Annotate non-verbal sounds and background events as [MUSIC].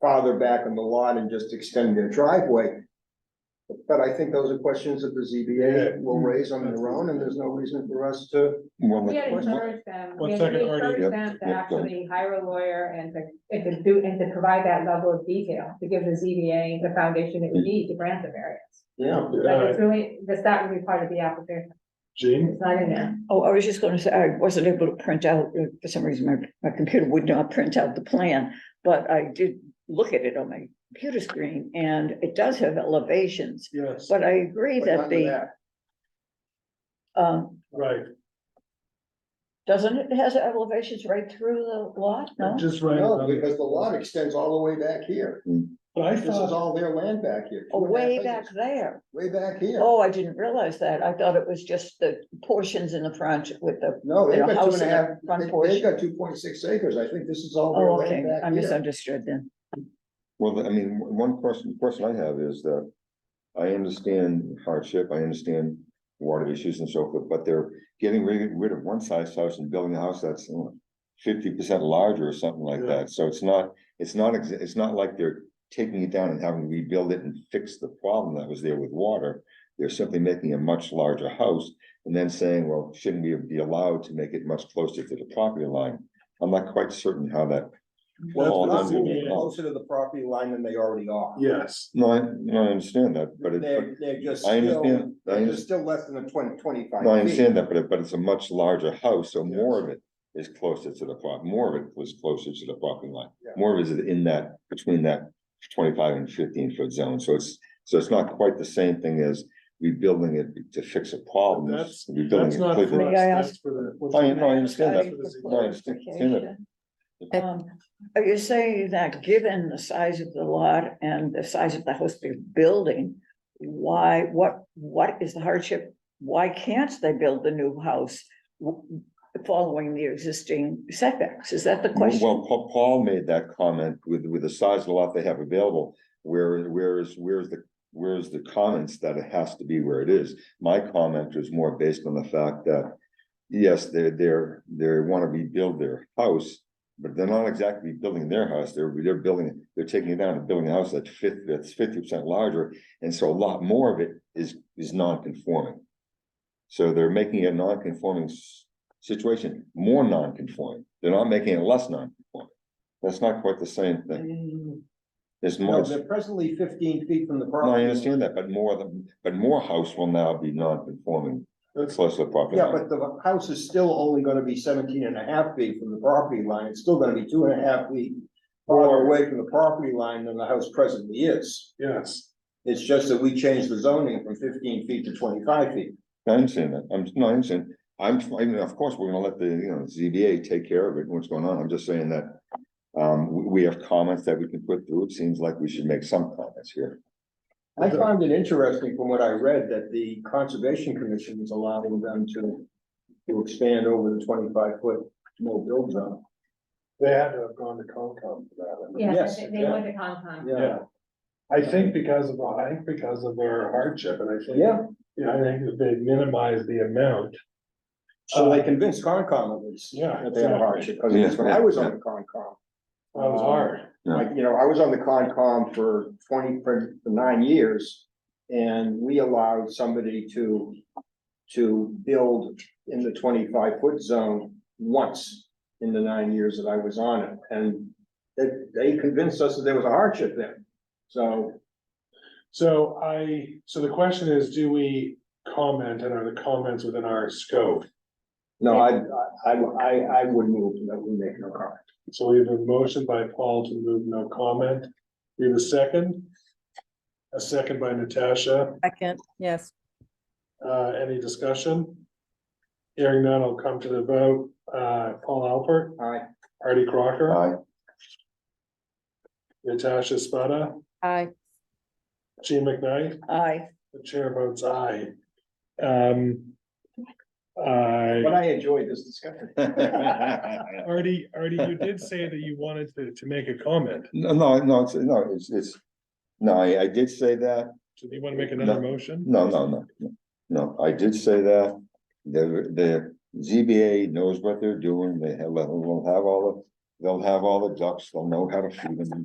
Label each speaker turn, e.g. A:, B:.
A: farther back on the lot and just extend their driveway. But I think those are questions that the ZBA will raise on their own, and there's no reason for us to.
B: Well,
C: We had
B: what- what-
C: encouraged
D: One
C: them, we had
D: second,
C: we
D: Artie.
C: encouraged
B: Yep,
C: them to
B: yep, go ahead.
C: actually hire a lawyer and to, and to do, and to provide that level of detail, to give the ZBA the foundation it would need to grant the variance.
A: Yeah.
C: Like,
D: Uh,
C: it's really, this, that would be part of the application,
D: Jean,
C: it's not in there.
E: Oh, I was just gonna say, I wasn't able to print out, uh, for some reason, my, my computer would not print out the plan, but I did look at it on my computer screen, and it does have elevations,
D: yes,
E: but I agree
A: but
E: that
A: under
E: the,
A: that.
E: um,
D: right,
E: doesn't it, has elevations right through the lot, no?
D: just right.
A: No,
D: on-
A: because the lot extends all the way back here.
D: But I
A: This is
D: thought,
A: all their land back here.
E: Oh,
A: two and a half
E: way
A: acres,
E: back there,
A: Way back here.
E: oh, I didn't realize that, I thought it was just the portions in the front with the,
A: No, they've
E: and a
A: got two
E: house
A: and a
E: in the
A: half,
E: front
A: they-
E: porch.
A: they've got two point six acres. I think this is all their
E: oh, okay,
A: land
E: I
A: back here.
E: misunderstood then.
B: Well, I mean, one question, question I have is that I understand hardship, I understand water issues and so forth, but they're getting rid, rid of one size house and building a house that's uh, fifty percent larger or something like
D: Yeah.
B: that, so it's not, it's not, exa- it's not like they're taking it down and having to rebuild it and fix the problem that was there with water. They're simply making a much larger house and then saying, well, shouldn't we be allowed to make it much closer to the property line? I'm not quite certain how that,
A: Well,
B: Well,
A: it's not
B: then-
A: moving closer to the property line than they already are.
D: yes,
B: no, I, no, I understand that, but it. but-
A: They're, they're just
B: I
A: still,
B: understand, I
A: they're
B: understand,
A: still less than the twenty, twenty-five.
B: I
A: feet.
B: understand that, but it, but it's a much larger house, so more of it is closer to the prop, more of it was closer to the property line.
A: Yeah.
B: More of it is in that, between that twenty-five and fifteen foot zone, so it's, so it's not quite the same thing as rebuilding it to fix a problem.
D: That's-
B: rebuilding
D: that's
B: it
D: not for
B: completely.
D: us,
E: May I
D: that's for the.
B: I know, I understand that.
D: That's for the
B: No, I
D: ZBA.
B: understand that.
E: Um, are you saying that given the size of the lot and the size of the house they're building, why, what, what is the hardship? Why can't they build the new house w- following the existing setbacks? Is that the question?
B: Well, Paul, Paul made that comment with, with the size of the lot they have available, where, where is, where's the, where's the comments that it has to be where it is? My comment was more based on the fact that, yes, they're, they're, they wanna rebuild their house, but they're not exactly building their house, they're, they're building, they're taking it down and building a house that's fifty, that's fifty percent larger, and so a lot more of it is, is non-conforming. So they're making it a non-conforming s- situation more non-conforming. They're not making it less non-conforming. That's not quite the same thing. There's
A: Mm. No,
B: more,
A: they're presently fifteen feet from the
B: no, I
A: property. line.
B: understand that, but more than, but more house will now be non-conforming.
D: That's-
B: Close to the property.
A: Yeah, but
B: line.
A: the house is still only gonna be 17 and a half feet from the property line. It's still gonna be two and a half feet farther away from the property line than the house presently is.
D: Yes,
A: It's just that we changed the zoning from fifteen feet to twenty-five feet.
B: I understand that. I'm, no, I understand. I'm, I mean, of course, we're gonna let the, you know, ZBA take care of it, and what's going on. I'm just saying that. Um, we, we have comments that we can put through. It seems like we should make some comments here.
A: I found it interesting from what I read that the Conservation Commission is allowing them to, to expand over the twenty-five foot no build zone.
D: they had to have gone to Concom for that. I think.
A: Yes,
C: Yes, they they
A: yeah.
C: went to Concom.
A: Yeah,
D: I think because of, I think because of their hardship, and I think.
A: yeah,
D: Yeah, I think that they minimize the amount,
A: so they convinced Concom at least.
D: Yeah,
A: That they had a hardship, because
B: Yeah,
A: that's when I was on the Concom.
D: that was hard,
A: Like, you know, I was on the Concom for twenty, for for nine years, and we allowed somebody to, to build in the twenty-five foot zone once in the nine years that I was on it, and they, they convinced us that there was a hardship there. So,
D: so I, so the question is, do we comment, and are the comments within our scope?
A: no, I, I, I, I would move that we make no comment.
D: So we have a motion by Paul to move no comment, we have a second. A second by Natasha,
F: Second, yes.
D: uh, any discussion? Hearing none, I'll come to the vote, uh, Paul Alpert,
A: All right,
D: Artie Crocker,
B: Aye.
D: Natasha Spada,
F: Aye.
D: Gene McKnight.
E: I,
D: The chair votes aye. Um. I,
A: but I enjoyed this discussion.
D: Artie, Artie, you did say that you wanted to, to make a comment.
B: [LAUGHS] No, no, no, it's, no, it's, it's, no, I, I did say that.
D: Do you want to make another
B: No.
D: motion?
B: No, no, no, no, no, I did say that, the, the ZBA knows what they're doing, they have, they'll have all the, they'll have all the ducks, they'll know how to feed them.